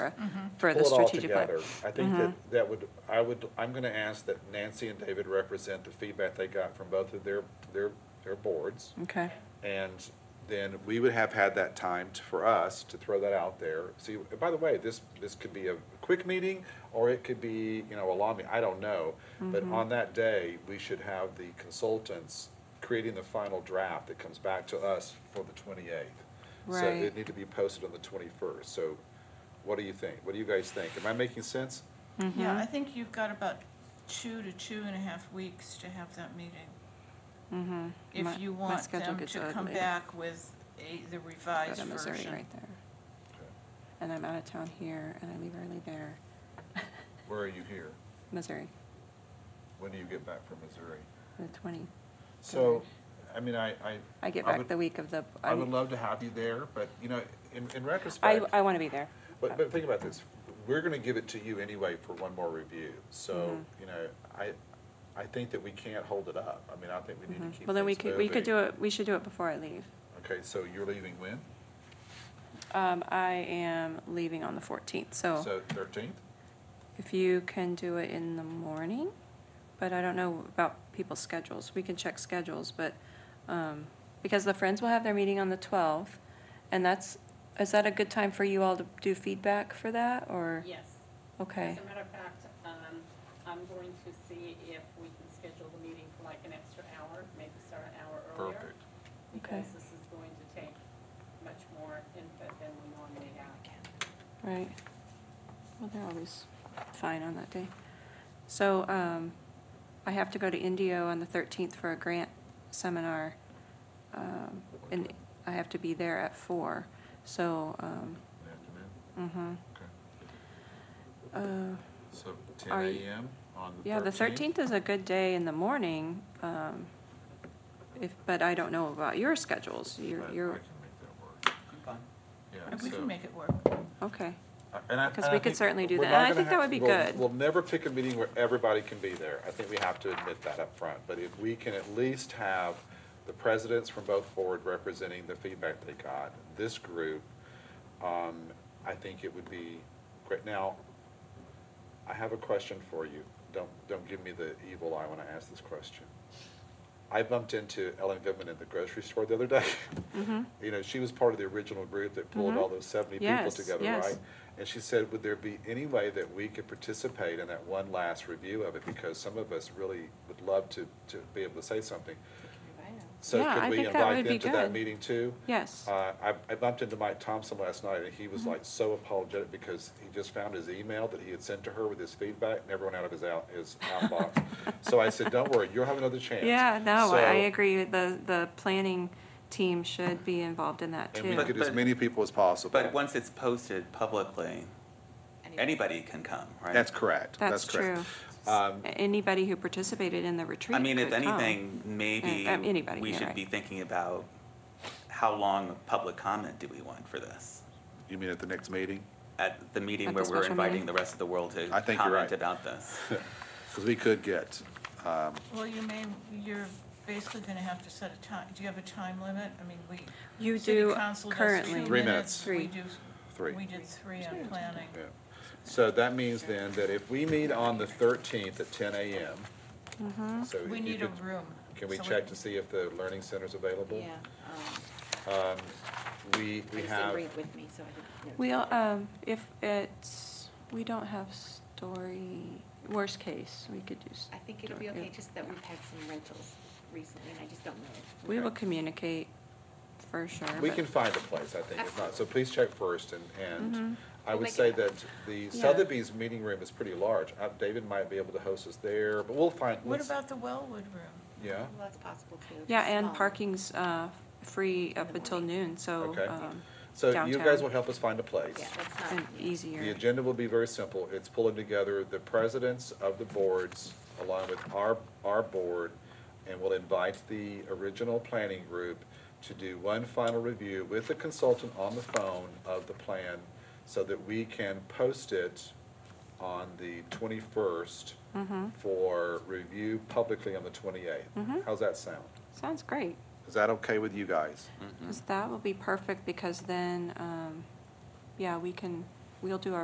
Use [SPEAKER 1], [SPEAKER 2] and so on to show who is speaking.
[SPEAKER 1] for the
[SPEAKER 2] pull it all
[SPEAKER 1] strategic plan. Mm-hmm.
[SPEAKER 2] together. I think that, that would, I would, I'm gonna ask that Nancy and David represent the feedback they got from both of their, their, their boards.
[SPEAKER 1] Okay,
[SPEAKER 2] And then we would have had that time to- for us to throw that out there. See, by the way, this, this could be a quick meeting, or it could be, you know, a long meeting, I don't know. But
[SPEAKER 1] Mm-hmm.
[SPEAKER 2] on that day, we should have the consultants creating the final draft that comes back to us for the twenty-eighth. So
[SPEAKER 1] Right.
[SPEAKER 2] it need to be posted on the twenty-first, so what do you think? What do you guys think? Am I making sense?
[SPEAKER 1] Mm-hmm.
[SPEAKER 3] Yeah, I think you've got about two to two and a half weeks to have that meeting.
[SPEAKER 1] My-
[SPEAKER 3] If you
[SPEAKER 1] Mm-hmm. my
[SPEAKER 3] want
[SPEAKER 1] schedule
[SPEAKER 3] them
[SPEAKER 1] gets
[SPEAKER 3] to come
[SPEAKER 1] ugly.
[SPEAKER 3] back with a, the
[SPEAKER 1] go
[SPEAKER 3] revised
[SPEAKER 1] to Missouri
[SPEAKER 3] version.
[SPEAKER 1] right there. And I'm out of town here and I leave early there,
[SPEAKER 2] Where are you here?
[SPEAKER 1] Missouri,
[SPEAKER 2] When do you get back from Missouri?
[SPEAKER 1] the 20.
[SPEAKER 2] So, I mean, I, I.
[SPEAKER 1] I get
[SPEAKER 2] would-
[SPEAKER 1] back the week of the,
[SPEAKER 2] I would
[SPEAKER 1] I'm-
[SPEAKER 2] love to have you there, but, you know, in, in
[SPEAKER 1] I,
[SPEAKER 2] retrospect,
[SPEAKER 1] I want to be there.
[SPEAKER 2] but, but think about this. We're gonna give it to you anyway for one more review, so,
[SPEAKER 1] Mm-hmm.
[SPEAKER 2] you know, I, I think that we can't hold it up. I mean, I think we need to
[SPEAKER 1] Mm-hmm.
[SPEAKER 2] keep things moving.
[SPEAKER 1] Well, then we could, we could do it, we should do it before I leave.
[SPEAKER 2] Okay, so you're leaving when?
[SPEAKER 1] Um, I am leaving on the 14th, so
[SPEAKER 2] So thirteenth?
[SPEAKER 1] if you can do it in the morning, but I don't know about people's schedules. We can check schedules, but, um, because the Friends will have their meeting on the 12th, and that's, is that a good time for you all to do feedback for that, or?
[SPEAKER 4] Yes.
[SPEAKER 1] Okay,
[SPEAKER 4] As a matter of fact, um, I'm going to see if we can schedule the meeting for like an extra hour, maybe start an hour earlier.
[SPEAKER 2] Perfect.
[SPEAKER 4] Because
[SPEAKER 1] Okay.
[SPEAKER 4] this is going to take much more input than we normally have.
[SPEAKER 1] right. Well, they're always fine on that day. So, um, I have to go to Indio on the 13th for a grant seminar. um, And I have to be there at four, so, um,
[SPEAKER 2] In the afternoon?
[SPEAKER 1] mhm.
[SPEAKER 2] Okay.
[SPEAKER 1] Uh,
[SPEAKER 2] So ten
[SPEAKER 1] Are you-
[SPEAKER 2] AM on the thirteenth?
[SPEAKER 1] Yeah, the 13th is a good day in the morning, um, if, but I don't know about your schedules.
[SPEAKER 2] I
[SPEAKER 1] You're,
[SPEAKER 2] can make
[SPEAKER 1] you're,
[SPEAKER 2] that work. Yeah,
[SPEAKER 3] We can
[SPEAKER 2] so-
[SPEAKER 3] make it work.
[SPEAKER 1] okay.
[SPEAKER 2] And I-
[SPEAKER 1] Because
[SPEAKER 2] and I
[SPEAKER 1] we could
[SPEAKER 2] think
[SPEAKER 1] certainly do
[SPEAKER 2] we're
[SPEAKER 1] that.
[SPEAKER 2] not
[SPEAKER 1] And I
[SPEAKER 2] gonna
[SPEAKER 1] think that
[SPEAKER 2] have-
[SPEAKER 1] would be
[SPEAKER 2] we'll-
[SPEAKER 1] good.
[SPEAKER 2] We'll never pick a meeting where everybody can be there. I think we have to admit that up front. But if we can at least have the presidents from both board representing the feedback they got, this group, um, I think it would be great. Now, I have a question for you. Don't, don't give me the evil eye when I ask this question. I bumped into Ellen Goodman at the grocery store the other day.
[SPEAKER 1] Mm-hmm.
[SPEAKER 2] You know, she was part of the original group that pulled all those seventy people
[SPEAKER 1] Yes,
[SPEAKER 2] together,
[SPEAKER 1] yes.
[SPEAKER 2] right? And she said, would there be any way that we could participate in that one last review of it? Because some of us really would love to, to be able to say something. So
[SPEAKER 1] Yeah, I
[SPEAKER 2] could we
[SPEAKER 1] think that
[SPEAKER 2] invite
[SPEAKER 1] would
[SPEAKER 2] them
[SPEAKER 1] be
[SPEAKER 2] to that
[SPEAKER 1] good.
[SPEAKER 2] meeting too?
[SPEAKER 1] Yes.
[SPEAKER 2] Uh, I, I bumped into Mike Thompson last night, and he was like so apologetic because he just found his email that he had sent to her with his feedback, and everyone out of his out, his outbox. So I said, don't worry, you'll have another chance.
[SPEAKER 1] Yeah, no,
[SPEAKER 2] So-
[SPEAKER 1] I I agree. The, the planning team should be involved in that
[SPEAKER 2] And we
[SPEAKER 1] too.
[SPEAKER 2] get as
[SPEAKER 5] But-
[SPEAKER 2] many people as possible.
[SPEAKER 5] But once it's posted publicly, anybody can come, right?
[SPEAKER 2] That's correct.
[SPEAKER 1] That's
[SPEAKER 2] correct. Um,
[SPEAKER 1] true. Anybody who participated in the retreat
[SPEAKER 5] I mean, if
[SPEAKER 1] could come.
[SPEAKER 5] anything, maybe
[SPEAKER 1] Yeah, um, anybody,
[SPEAKER 5] we
[SPEAKER 1] yeah,
[SPEAKER 5] should
[SPEAKER 1] right.
[SPEAKER 5] be thinking about how long of public comment do we want for this?
[SPEAKER 2] You mean at the next meeting?
[SPEAKER 5] At the meeting
[SPEAKER 1] At
[SPEAKER 5] where
[SPEAKER 1] the
[SPEAKER 5] we're
[SPEAKER 1] special
[SPEAKER 5] inviting
[SPEAKER 1] meeting?
[SPEAKER 5] the rest of the world to
[SPEAKER 2] I think you're right.
[SPEAKER 5] comment about this.
[SPEAKER 2] Because we could get,
[SPEAKER 3] Well, you may, you're basically gonna have to set a time, do you have a time limit? I mean, we.
[SPEAKER 1] You
[SPEAKER 3] city
[SPEAKER 1] do
[SPEAKER 3] council does
[SPEAKER 1] currently.
[SPEAKER 3] two
[SPEAKER 2] Three minutes.
[SPEAKER 3] We
[SPEAKER 1] Three.
[SPEAKER 3] do,
[SPEAKER 2] Three.
[SPEAKER 3] we did three on planning.
[SPEAKER 2] yeah. So that means then that if we meet on the thirteenth at ten AM,
[SPEAKER 1] Mm-hmm.
[SPEAKER 2] so if
[SPEAKER 3] We
[SPEAKER 2] you
[SPEAKER 3] need a
[SPEAKER 2] could-
[SPEAKER 3] room.
[SPEAKER 2] Can we
[SPEAKER 3] so
[SPEAKER 2] check to see if the learning center's available?
[SPEAKER 6] Yeah, um,
[SPEAKER 2] We, we
[SPEAKER 6] Lisa
[SPEAKER 2] have,
[SPEAKER 6] agreed with me, so I didn't. know.
[SPEAKER 1] We, um, if it's, we don't have story, worst case, we could do. s-
[SPEAKER 6] I think it'll be
[SPEAKER 1] story.
[SPEAKER 6] okay, just that we've had some rentals recently, and I just don't know.
[SPEAKER 1] We will communicate for sure.
[SPEAKER 2] we
[SPEAKER 1] but-
[SPEAKER 2] can find a place, I think, if not, so please check first, and, and I
[SPEAKER 6] Mm-hmm. We'll
[SPEAKER 2] would
[SPEAKER 6] make it
[SPEAKER 2] say that
[SPEAKER 6] happen.
[SPEAKER 2] the
[SPEAKER 1] Yeah.
[SPEAKER 2] Sotheby's meeting room is pretty large. Uh, David might be able to host us there, but we'll find,
[SPEAKER 3] What
[SPEAKER 2] let's-
[SPEAKER 3] about the Wellwood room?
[SPEAKER 2] yeah?
[SPEAKER 6] Well, that's possible too. if
[SPEAKER 1] Yeah,
[SPEAKER 6] it's
[SPEAKER 1] and
[SPEAKER 6] small.
[SPEAKER 1] parking's, uh, free up
[SPEAKER 6] the
[SPEAKER 1] until
[SPEAKER 6] morning.
[SPEAKER 1] noon, so,
[SPEAKER 2] Okay.
[SPEAKER 1] um,
[SPEAKER 2] So you guys
[SPEAKER 1] downtown.
[SPEAKER 2] will help us find a place.
[SPEAKER 6] Yeah, that's
[SPEAKER 1] and
[SPEAKER 6] not. yeah.
[SPEAKER 2] The
[SPEAKER 1] easier.
[SPEAKER 2] agenda will be very simple. It's pulling together the presidents of the boards along with our, our board, and we'll invite the original planning group to do one final review with the consultant on the phone of the plan so that we can post it on the 21st for review publicly on the 28th. How's that sound?
[SPEAKER 1] Sounds great,
[SPEAKER 2] Is that okay with you guys?
[SPEAKER 1] because that will be perfect, because then, um, yeah, we can, we'll do our